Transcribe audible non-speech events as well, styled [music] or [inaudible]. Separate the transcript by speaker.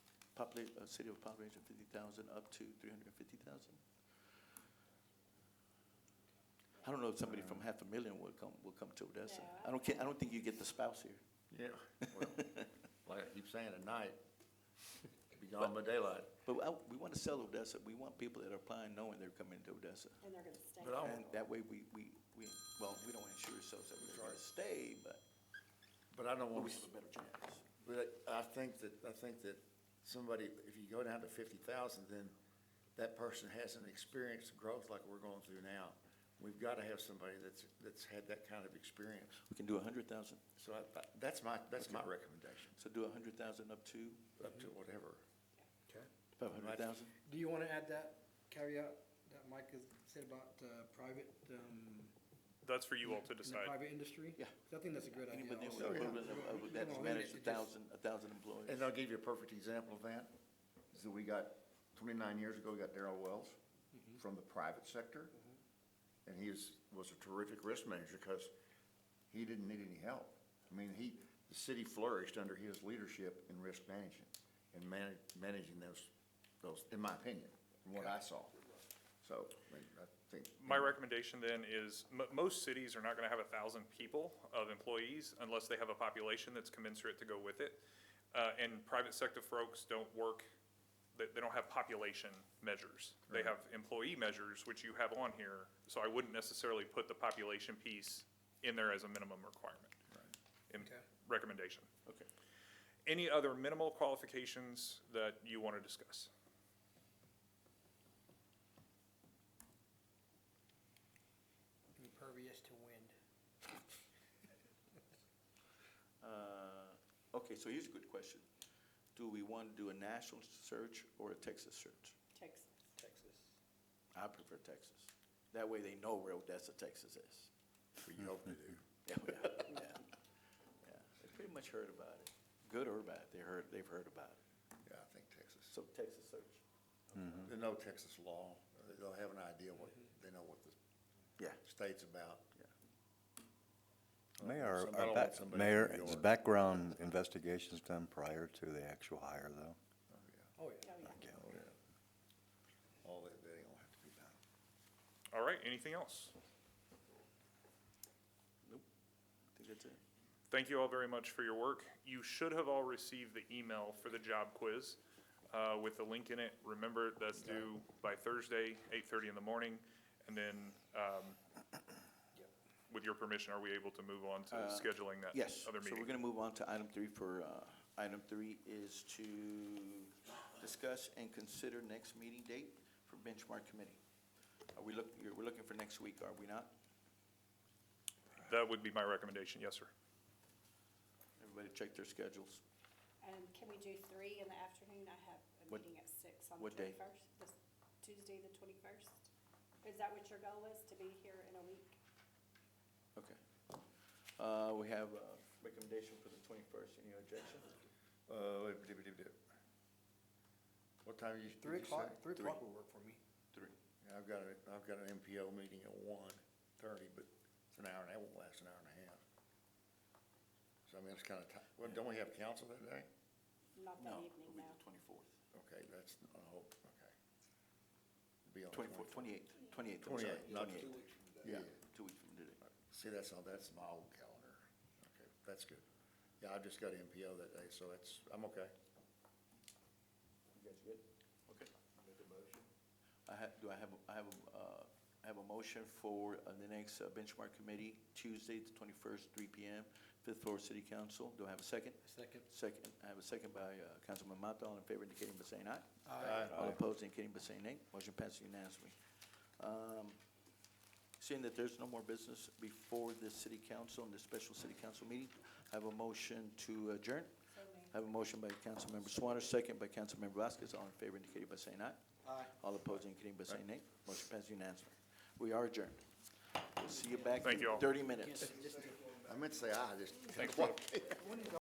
Speaker 1: population, a uh, city of population of fifty thousand up to three hundred and fifty thousand? I don't know if somebody from half a million will come, will come to Odessa.
Speaker 2: No, I
Speaker 1: I don't ca- I don't think you get the spouse here.
Speaker 3: Yeah, well, like I keep saying, at night, be gone by daylight.
Speaker 1: But I, we want to sell Odessa, we want people that are applying knowing they're coming to Odessa.
Speaker 2: and they're gonna stay.
Speaker 3: But I
Speaker 1: And that way we, we, we, well, we don't ensure ourselves that we're gonna stay, but
Speaker 3: But I don't
Speaker 1: we
Speaker 3: want,
Speaker 1: have a better chance.
Speaker 3: but I think that, I think that somebody, if you go down to fifty thousand, then that person hasn't experienced growth like we're going through now. We've gotta have somebody that's, that's had that kind of experience.
Speaker 1: We can do a hundred thousand,
Speaker 3: So I, I- that's my, that's my recommendation,
Speaker 1: so do a hundred thousand up to
Speaker 3: up to whatever.
Speaker 4: Okay.
Speaker 1: five hundred thousand?
Speaker 4: Do you want to add that caveat that Mike has said about uh, private? um,
Speaker 5: That's for you all
Speaker 4: in
Speaker 5: to
Speaker 4: the
Speaker 5: decide.
Speaker 4: Private industry?
Speaker 1: Yeah.
Speaker 4: 'Cause I think that's a good idea.
Speaker 1: Anybody with
Speaker 4: also.
Speaker 1: equivalent of,
Speaker 4: You
Speaker 1: of
Speaker 4: don't
Speaker 1: that's
Speaker 4: wanna limit
Speaker 1: managed a
Speaker 4: it to just-
Speaker 1: thousand, a thousand employees.
Speaker 3: And I'll give you a perfect example of that, is that we got, twenty-nine years ago, we got Darrell Wells from the private sector. And he is, was a terrific risk manager because he didn't need any help. I mean, he, the city flourished under his leadership in risk management and man, managing those, those, in my opinion, from what I saw. So, I mean, I think.
Speaker 5: My recommendation then is, mo most cities are not gonna have a thousand people of employees unless they have a population that's commensurate to go with it. Uh, and private sector folks don't work, they, they don't have population measures. They have employee measures, which you have on here, so I wouldn't necessarily put the population piece in there as a minimum requirement. In
Speaker 4: Okay.
Speaker 5: recommendation.
Speaker 1: Okay.
Speaker 5: Any other minimal qualifications that you wanna discuss?
Speaker 4: Impervious to wind.
Speaker 1: Uh, Okay, so here's a good question. Do we want to do a national search or a Texas search?
Speaker 2: Texas.
Speaker 4: Texas.
Speaker 1: I prefer Texas. That way they know where Odessa, Texas is.
Speaker 3: For you hope to do.
Speaker 1: [laughs] Yeah, yeah, yeah. Yeah, They pretty much heard about it, good or bad, they heard, they've heard about it.
Speaker 3: Yeah, I think Texas.
Speaker 1: So Texas search.
Speaker 3: They know Texas law, they'll have an idea what, they know what the
Speaker 1: Yeah.
Speaker 3: state's about.
Speaker 6: Mayor,
Speaker 3: Somebody
Speaker 6: our
Speaker 3: will
Speaker 6: back,
Speaker 3: want somebody
Speaker 6: Mayor,
Speaker 3: in New
Speaker 6: is
Speaker 3: York.
Speaker 6: background investigations done prior to the actual hire, though?
Speaker 4: Oh, yeah.
Speaker 2: Oh, yeah.
Speaker 6: Yeah.
Speaker 3: Oh, yeah. All that, they don't have to be done.
Speaker 5: All right, anything else?
Speaker 1: Nope, I think that's it.
Speaker 5: Thank you all very much for your work. You should have all received the email for the job quiz uh, with the link in it. Remember, that's due by Thursday, 8:30 in the morning. And then, um, with your permission, are we able to move on to scheduling that
Speaker 1: Uh, Yes, so
Speaker 5: other
Speaker 1: we're
Speaker 5: meeting?
Speaker 1: gonna move on to item three for, uh, item three is to discuss and consider next meeting date for benchmark committee. Are we look, you're- we're looking for next week, are we not?
Speaker 5: That would be my recommendation, yes, sir.
Speaker 1: Everybody check their schedules.
Speaker 2: And can we do three in the afternoon? I have a
Speaker 1: What-
Speaker 2: meeting at six on the
Speaker 1: what day?
Speaker 2: twenty-first. This Tuesday, the twenty-first. Is that what your goal is, to be here in a week?
Speaker 1: Okay. Uh, we have a recommendation for the twenty-first, any objection?
Speaker 3: Uh, wait, dip, dip, dip. What time you, did
Speaker 4: Three
Speaker 3: you say?
Speaker 4: o'clock, three
Speaker 1: Three.
Speaker 4: o'clock will work for me.
Speaker 1: Three.
Speaker 3: Yeah, I've got a, I've got an MPO meeting at one thirty, but it's an hour, and that won't last an hour and a half. So I mean, it's kinda ti, well, don't we have council that day?
Speaker 2: Not that
Speaker 1: No,
Speaker 2: evening,
Speaker 1: it'll be
Speaker 2: no.
Speaker 1: the twenty-fourth.
Speaker 3: Okay, that's, I hope, okay. Be on the
Speaker 1: Twenty-fourth, twenty-eighth,
Speaker 3: 24th.
Speaker 1: twenty-eighth, I'm sorry.
Speaker 3: 28th, not two
Speaker 1: 28th.
Speaker 3: Yeah,
Speaker 1: Two weeks from today.
Speaker 3: see, that's, all. that's my old calendar. Okay, that's good. Yeah, I've just got MPO that day, so that's, I'm okay.
Speaker 1: You guys good? Okay. I have, do I have, I have, a, uh, I have a motion for uh, the next uh, benchmark committee, Tuesday, the twenty-first, three P M, fifth floor city council. Do I have a second?
Speaker 4: Second.
Speaker 1: Second, I have a second by, uh, Councilman Mata, all in favor indicating by saying aye.
Speaker 3: Aye.
Speaker 1: All opposed indicating by saying nay. Motion passes unanimously. Um, Seeing that there's no more business before the city council and the special city council meeting, I have a motion to adjourn.
Speaker 2: So moved.
Speaker 1: I have a motion by Councilmember Swanner, second by Councilmember Vasquez. All in favor indicating by saying aye.
Speaker 4: Aye.
Speaker 1: All opposed indicating by saying nay. Motion passes unanimously. We are adjourned. We'll see you back
Speaker 5: Thank you
Speaker 1: in
Speaker 5: all.
Speaker 1: thirty minutes.
Speaker 3: I meant to say aye, I just.
Speaker 5: Thanks, Bob.